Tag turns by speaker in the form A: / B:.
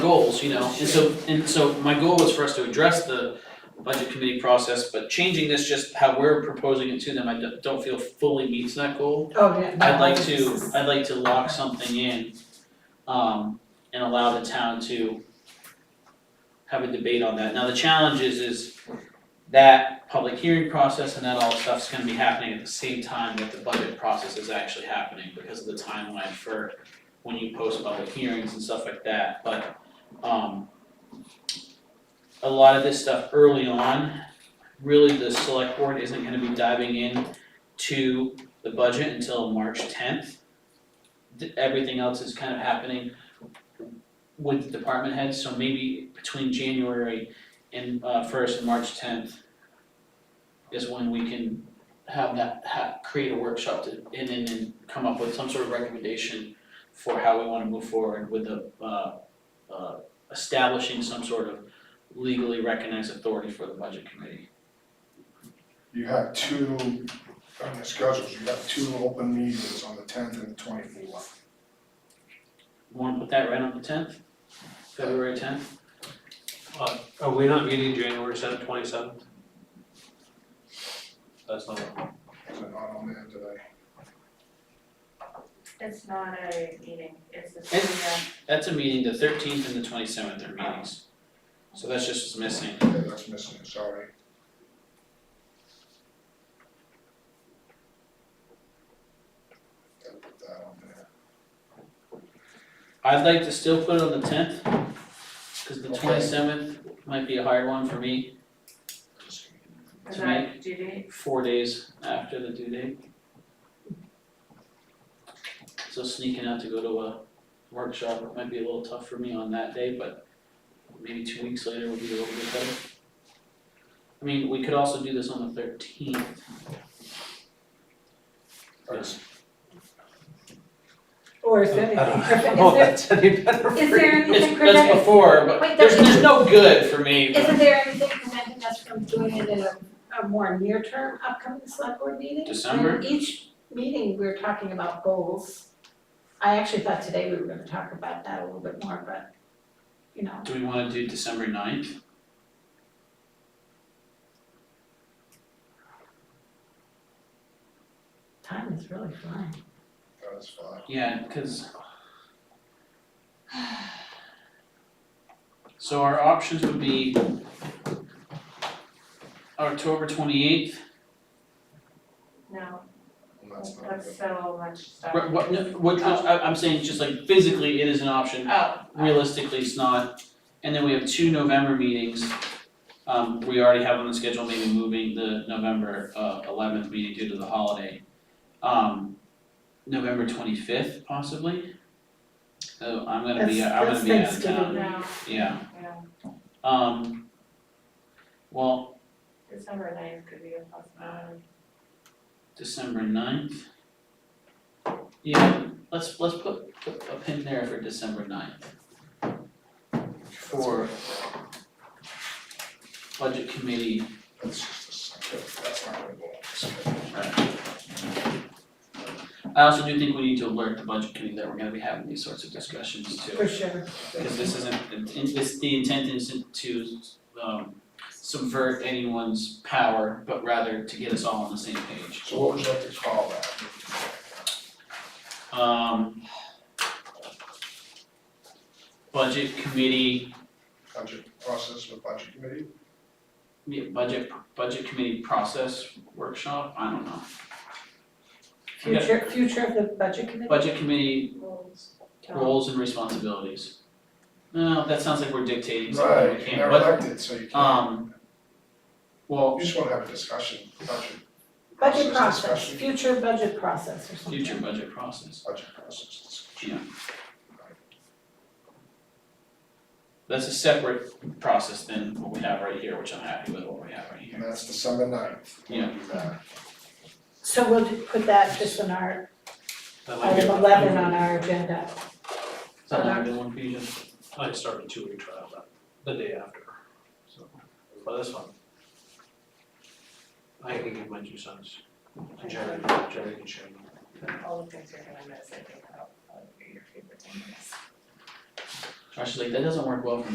A: goals, you know, and so, and so my goal was for us to address the budget committee process, but changing this just how we're proposing it to them, I don't- don't feel fully meets that goal.
B: Oh, yeah.
A: I'd like to, I'd like to lock something in, um, and allow the town to have a debate on that. Now, the challenge is, is that public hearing process and that all stuff's gonna be happening at the same time that the budget process is actually happening because of the timeline for when you post public hearings and stuff like that, but, um, a lot of this stuff early on, really the select board isn't gonna be diving in to the budget until March tenth. Everything else is kind of happening with the department heads, so maybe between January and uh first and March tenth is when we can have that, ha create a workshop to, and then and come up with some sort of recommendation for how we wanna move forward with the uh uh establishing some sort of legally recognized authority for the budget committee.
C: You have two, on the schedules, you have two open meetings on the tenth and the twenty-fourth.
A: Wanna put that right on the tenth, February tenth?
D: Are we not meeting January seventh, twenty-seventh? That's not,
C: Is it not on there today?
E: It's not a meeting, it's a,
A: It's-
E: yeah,
A: That's a meeting, the thirteenth and the twenty-seventh are meetings. So that's just what's missing.
C: Yeah, that's missing, sorry. Gotta put that on there.
A: I'd like to still put it on the tenth, cause the
C: Okay.
A: twenty-seventh might be a hard one for me,
E: is
A: To
E: that due date?
A: four days after the due date. So sneaking out to go to a workshop might be a little tough for me on that day, but maybe two weeks later would be a little bit better. I mean, we could also do this on the thirteenth.
C: That's-
B: Or is
D: I
B: anything,
D: don't know if
B: is
D: that's any better for you.
F: Is there anything
A: It's, that's
F: preventing,
A: before, but
F: Wait,
A: there's,
F: there's-
A: there's no good for me, but
F: isn't there anything preventing us
B: from doing it in a, a more near-term upcoming select board meeting?
A: December?
B: And each meeting, we're talking about goals. I actually thought today we were gonna talk about that a little bit more, but, you know,
A: Do we wanna do December ninth?
B: time is really flying.
C: That's fine.
A: Yeah, cause. So our options would be October twenty eighth,
E: No,
C: And that's not
E: that's
C: good.
E: so much stuff.
A: what, what, no, what- I, I'm saying just like physically it is an option,
E: Oh,
A: realistically it's not. And then we have two November meetings, um, we already have on the schedule, maybe moving the November, uh, eleventh meeting due to the holiday. Um, November twenty fifth possibly. So I'm gonna be,
B: That's-
A: I'm gonna
B: that's
A: be out of town.
B: Thanksgiving.
E: no,
A: Yeah,
E: yeah,
A: um, well,
E: December ninth could be a possibility.
A: December ninth. Yeah, let's, let's put, put a pin there for December ninth. For budget committee,
C: That's just a second, that's not gonna go on the schedule.
A: uh, I also do think we need to alert the budget committee that we're gonna be having these sorts of discussions too.
B: For sure.
A: Cause this isn't, in- this, the intent isn't to, um, subvert anyone's power, but rather to get us all on the same page.
C: So what would you like to call that?
A: Um. Budget committee,
C: Budget process with budget committee?
A: yeah, budget, budget committee process workshop, I don't know. Yeah.
B: Future, future of the budget committee?
A: Budget committee
E: Rules.
A: roles and responsibilities. No, that sounds like we're dictating something
C: Right,
A: we
C: you're
A: can't,
C: not
A: but,
C: elected, so you can't.
A: um, well,
C: You just wanna have a discussion, budget.
B: Budget process,
C: discussion.
B: future budget process or something.
A: future budget process,
C: Budget process.
A: yeah. That's a separate process than what we have right here, which I'm happy with what we have right
C: And
A: here.
C: that's December ninth.
A: Yeah.
B: So we'll ju- put that just on our,
D: That might be-
B: item eleven on our agenda.
A: Is that not a good one for you, Jim?
D: I started two week trial that, the day after, so, but that's fine. I can give my two cents, and Jerry, Jerry can share.
E: All the things you're gonna miss, I think, are your favorite things.
A: Josh is like, that doesn't work well for me.